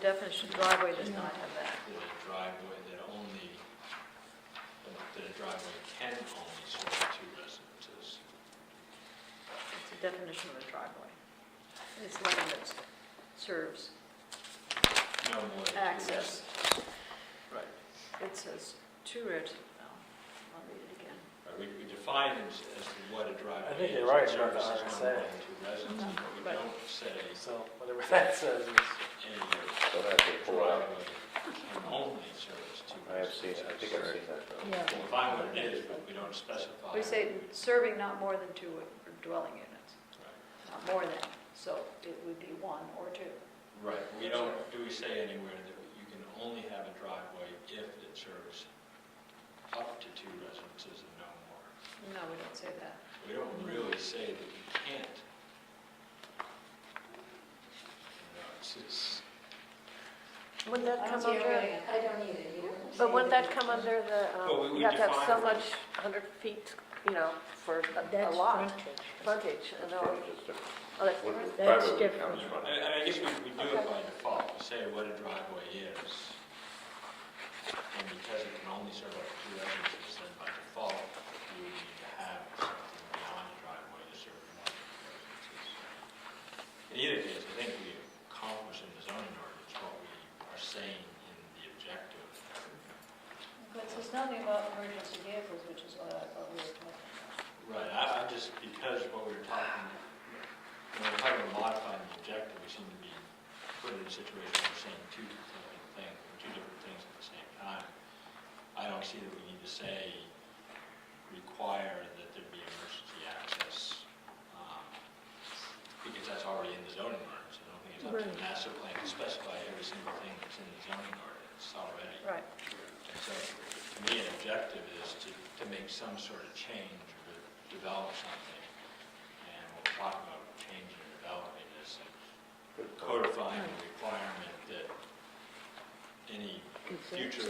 definition of driveway does not have that. that a driveway that only, that a driveway can only serve two residences. It's a definition of a driveway. It's land that serves, No more than two Access. residences. Right, it says two residences, oh, I'll read it again. right, we, we define as, as to what a driveway is. I think you're right It about the services RSA. no more than two residences, but we Right. don't say So whatever that says is, a Don't have to pull out. driveway can only serve two residences. I have seen, it. I think I've seen that though. We'll define what it is, but we don't specify. We say serving not more than two dwelling units, Right. not more than, so it would be one or two. Right, we don't, do we say anywhere that you can only have a driveway if it serves up to two residences and no more? No, we don't say that. We don't really say that you can't. You know, it's just, Wouldn't that come Yeah, under, right. I don't either, you know. but wouldn't that come under the, Well, we- um, we you have to have so define- much, 100 feet, you know, for a- a That's lot, frontage. frontage, and all, Just a- all that- what- That's private different. counts and running. and I guess we, we do it by default, we say what a driveway is. And because it can only serve up to two residences, then by default, you would need to have something beyond a driveway to serve more than two residences. In either case, I think we accomplish in the zoning ordinance what we are saying in the objective. But it says nothing about emergency vehicles, which is what I thought we were talking about. Right, I, I just, because what we were talking, when we we're talking about modifying the objective, we seem to be put in a situation where we're saying two different things, two different things at the same time. I don't see that we need to say, require that there be emergency access, um, because that's already in the zoning ordinance. I don't think it's up to the master plan to specify every single thing that's in the zoning ordinance already. Right. And so, to me, an objective is to, to make some sort of change or to develop something. And what we're talking about change and development is Good call. codifying the requirement that any future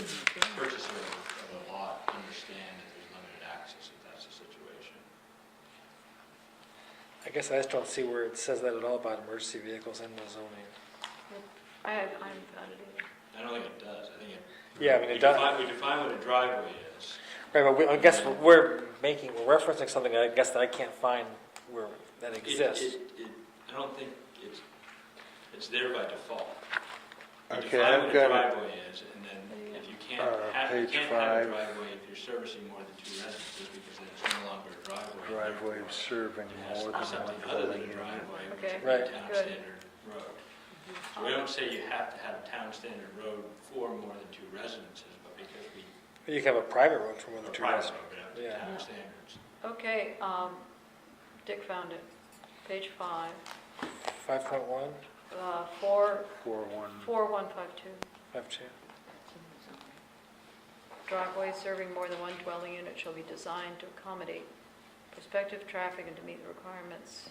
purchaser of a lot understand that there's limited access if that's the situation. I guess I just don't see where it says that at all about emergency vehicles in the zoning. I, I'm found it either. I don't think it does, I think it. Yeah, I mean, we it does, define- We define what a driveway is. right, but we, I guess we're making, we're referencing something, I guess that I can't find where that It- exists. it- it- I don't think it's, it's there by default. Okay, I've got Define what a it. driveway is, and then if you can't Uh, have, you page can't have a five. driveway if you're servicing more than two residences, because then it's no longer a driveway. Driveway Therefore, of serving It has more to than be one something other than dwelling a unit. driveway, which Okay, would be a Right. town good. standard road. So we don't say you have to have a town standard road for more than two residences, but because we, You can have a private road for more a than two private residents. road, but up to Yeah. town standards. Okay, um, Dick found it. Page five, Five point one, uh, four, Four one, four one five two. five two. Driveway serving more than one dwelling unit shall be designed to accommodate prospective traffic and to meet the requirements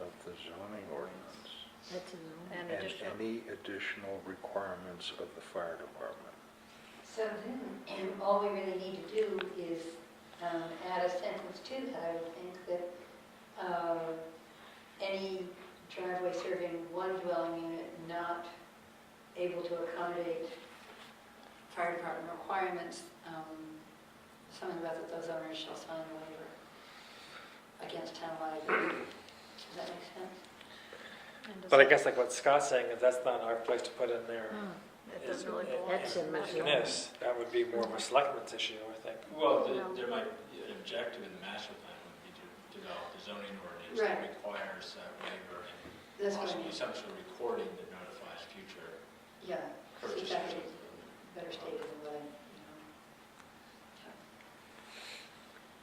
of the zoning ordinance. That's in the- and And additional. any additional requirements of the fire department. So then, all we really need to do is um, add a sentence to that, I would think, that uh, any driveway serving one dwelling unit not able to accommodate fire department requirements, um, something about that those owners shall sign a waiver against town liability. Does that make sense? and does But I that- guess like what Scott's saying is that's not our place to put in there. Hmm, It doesn't really It's- belong. That's in my In this, that would be more of a selectmen's issue, I think. Well, the- No. there might, an objective in the master plan would be to develop a zoning ordinance that Right. requires that waiver and That's what I possibly mean. some sort of recording that notifies future Yeah, purchasers. Exactly. of the- better stated than what I, you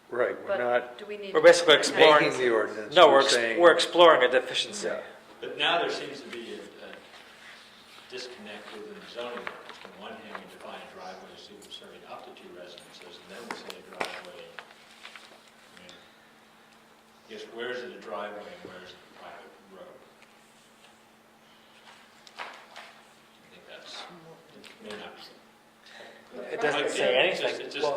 Right, we're not But do we need? We're basically exploring. making the ordinance. No, we're, ex- saying- we're exploring a deficiency. Yeah. But now there seems to be a a disconnect within the zoning ordinance. On one hand, we define a driveway as even serving up to two residences, and then we say a driveway, I mean, I guess where is it a driveway and where is it a private road? I think that's, it may not be. It doesn't say It's just- anything. it's just- Well,